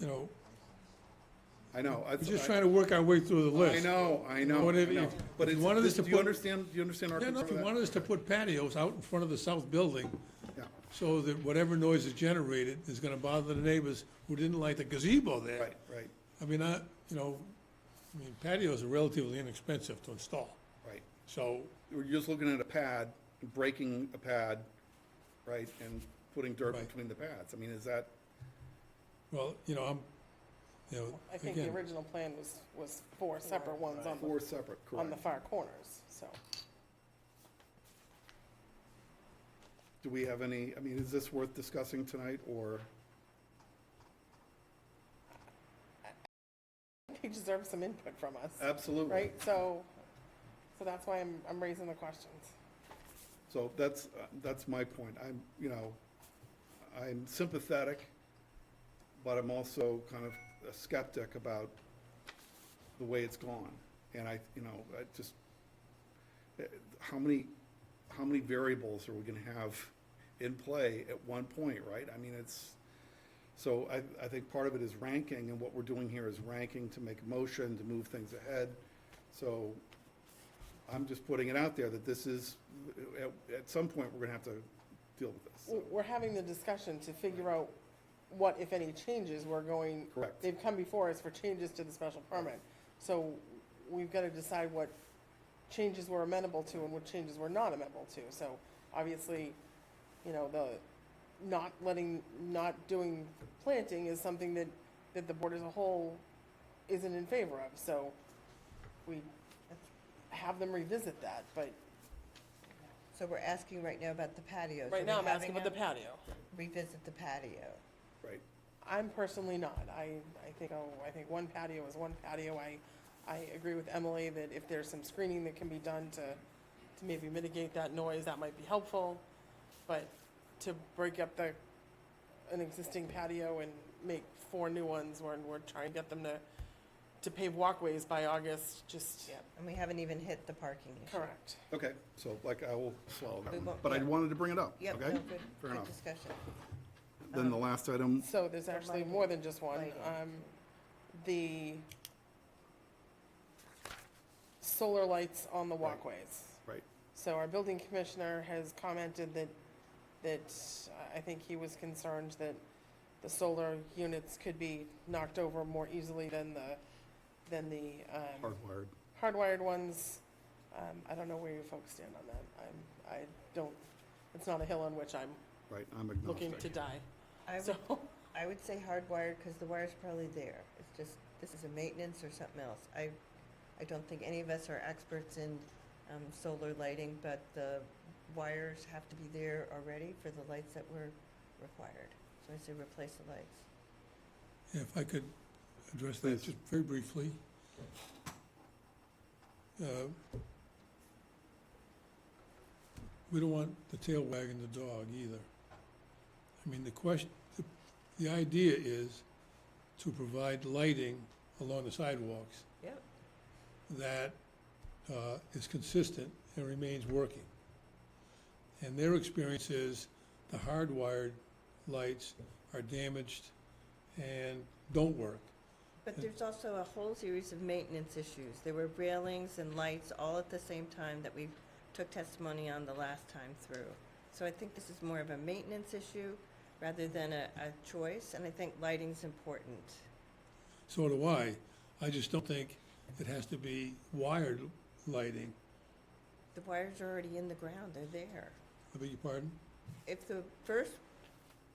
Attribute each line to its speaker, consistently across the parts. Speaker 1: you know,
Speaker 2: I know.
Speaker 1: we're just trying to work our way through the
Speaker 2: I
Speaker 1: list.
Speaker 2: know, I know, I
Speaker 1: What if-
Speaker 2: know.
Speaker 1: if-
Speaker 2: But
Speaker 1: if you
Speaker 2: it's,
Speaker 1: wanted us
Speaker 2: this-
Speaker 1: to
Speaker 2: do you
Speaker 1: put-
Speaker 2: understand, do you understand our
Speaker 1: Yeah,
Speaker 2: concern
Speaker 1: no, if you
Speaker 2: with that?
Speaker 1: wanted us to put patios out in front of the south building,
Speaker 2: Yeah,
Speaker 1: so that whatever noise is generated is gonna bother the neighbors who didn't like the gazebo there.
Speaker 2: Right, right,
Speaker 1: I mean, I, you know, I mean patios are relatively inexpensive to install,
Speaker 2: right.
Speaker 1: so,
Speaker 2: We're just looking at a pad, breaking a pad, right, and putting dirt
Speaker 1: Right.
Speaker 2: between the pads. I mean, is that,
Speaker 1: well, you know, I'm, you know,
Speaker 3: I think the
Speaker 1: again,
Speaker 3: original plan was, was four separate ones on
Speaker 2: four
Speaker 3: the,
Speaker 2: separate,
Speaker 3: on the
Speaker 2: correct?
Speaker 3: far corners, so.
Speaker 2: Do we have any, I mean, is this worth discussing tonight, or?
Speaker 3: He deserves some input from us,
Speaker 2: Absolutely.
Speaker 3: right? So, so that's why I'm, I'm raising the questions.
Speaker 2: So that's, uh, that's my point. I'm, you know, I'm sympathetic, but I'm also kind of a skeptic about the way it's gone. And I, you know, I just, eh, how many, how many variables are we gonna have in play at one point, right? I mean, it's, so I, I think part of it is ranking, and what we're doing here is ranking to make a motion, to move things ahead. So I'm just putting it out there that this is, at, at some point, we're gonna have to deal with this.
Speaker 3: We're-
Speaker 2: So,
Speaker 3: We're having the discussion to figure out what, if any, changes we're going.
Speaker 2: Correct.
Speaker 3: They've come before us for changes to the special permit. So we've got to decide what changes we're amenable to and what changes we're not amenable to. So obviously, you know, the not letting, not doing planting is something that, that the board as a whole isn't in favor of. So we have them revisit that, but
Speaker 4: So we're asking right now about the patio.
Speaker 3: right now I'm asking about the
Speaker 4: patio.
Speaker 3: patio.
Speaker 4: Revisit the patio.
Speaker 2: Right.
Speaker 3: I'm personally not. I, I think, oh, I think one patio is one patio. I, I agree with Emily that if there's some screening that can be done to, to maybe mitigate that noise, that might be helpful. But to break up the, an existing patio and make four new ones, we're, we're trying to get them to, to pave walkways by August, just.
Speaker 4: And we haven't even hit the parking issue.
Speaker 3: Correct.
Speaker 2: Okay, so like I will swallow
Speaker 4: We
Speaker 2: that one,
Speaker 4: won't-
Speaker 2: but I
Speaker 4: yeah.
Speaker 2: wanted to bring it up,
Speaker 4: Yep, Uh-huh. no,
Speaker 2: okay? Fair
Speaker 4: good, good
Speaker 2: enough.
Speaker 4: discussion.
Speaker 2: Then the last item,
Speaker 3: So there's
Speaker 4: The
Speaker 3: actually
Speaker 4: lighting.
Speaker 3: more than just one.
Speaker 4: Lighting.
Speaker 3: Um, the solar lights on the walkways.
Speaker 2: right,
Speaker 3: So our building commissioner has commented that, that uh, I think he was concerned that the solar units could be knocked over more easily than the, than the, um,
Speaker 2: hardwired.
Speaker 3: hardwired ones. Um, I don't know where you folks stand on that. I'm, I don't, it's not a hill on which I'm
Speaker 2: Right, I'm
Speaker 3: looking to
Speaker 2: agnostic.
Speaker 3: die.
Speaker 4: I would,
Speaker 3: So,
Speaker 4: I would say hardwired, because the wire's probably there. It's just, this is a maintenance or something else. I, I don't think any of us are experts in, um, solar lighting, but the wires have to be there already for the lights that were required. So I say replace the lights.
Speaker 1: if I could address that just very briefly. Uh, We don't want the tail wagging the dog either. I mean, the question, the- the idea is to provide lighting along the sidewalks
Speaker 4: Yep.
Speaker 1: that uh, is consistent and remains working. And their experience is the hardwired lights are damaged and don't work.
Speaker 4: But there's also a whole series of maintenance issues. There were railings and lights all at the same time that we took testimony on the last time through. So I think this is more of a maintenance issue rather than a, a choice, and I think lighting's important.
Speaker 1: So do I. I just don't think it has to be wired lighting.
Speaker 4: The wires are already in the ground, they're there.
Speaker 1: I beg your pardon?
Speaker 4: If the first,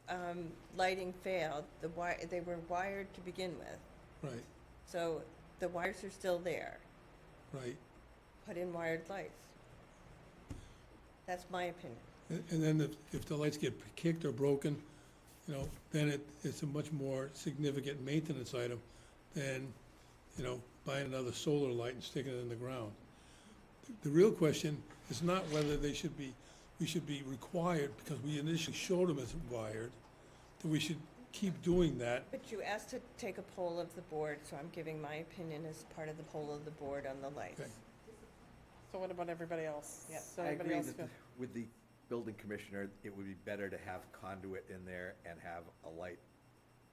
Speaker 4: um, lighting failed, the wire, they were wired to begin with.
Speaker 1: Right,
Speaker 4: So the wires are still there.
Speaker 1: right.
Speaker 4: Put in wired lights. That's my opinion.
Speaker 1: And and then if, if the lights get kicked or broken, you know, then it, it's a much more significant maintenance item than, you know, buying another solar light and sticking it in the ground. The real question is not whether they should be, we should be required, because we initially showed them as wired, that we should keep doing that.
Speaker 4: But you asked to take a poll of the board, so I'm giving my opinion as part of the poll of the board on the lights.
Speaker 1: Okay.
Speaker 3: so what about everybody else?
Speaker 4: Yep.
Speaker 3: So
Speaker 5: I
Speaker 3: everybody
Speaker 5: agree
Speaker 3: else
Speaker 5: that
Speaker 3: feel-
Speaker 5: the- with the building commissioner, it would be better to have conduit in there and have a light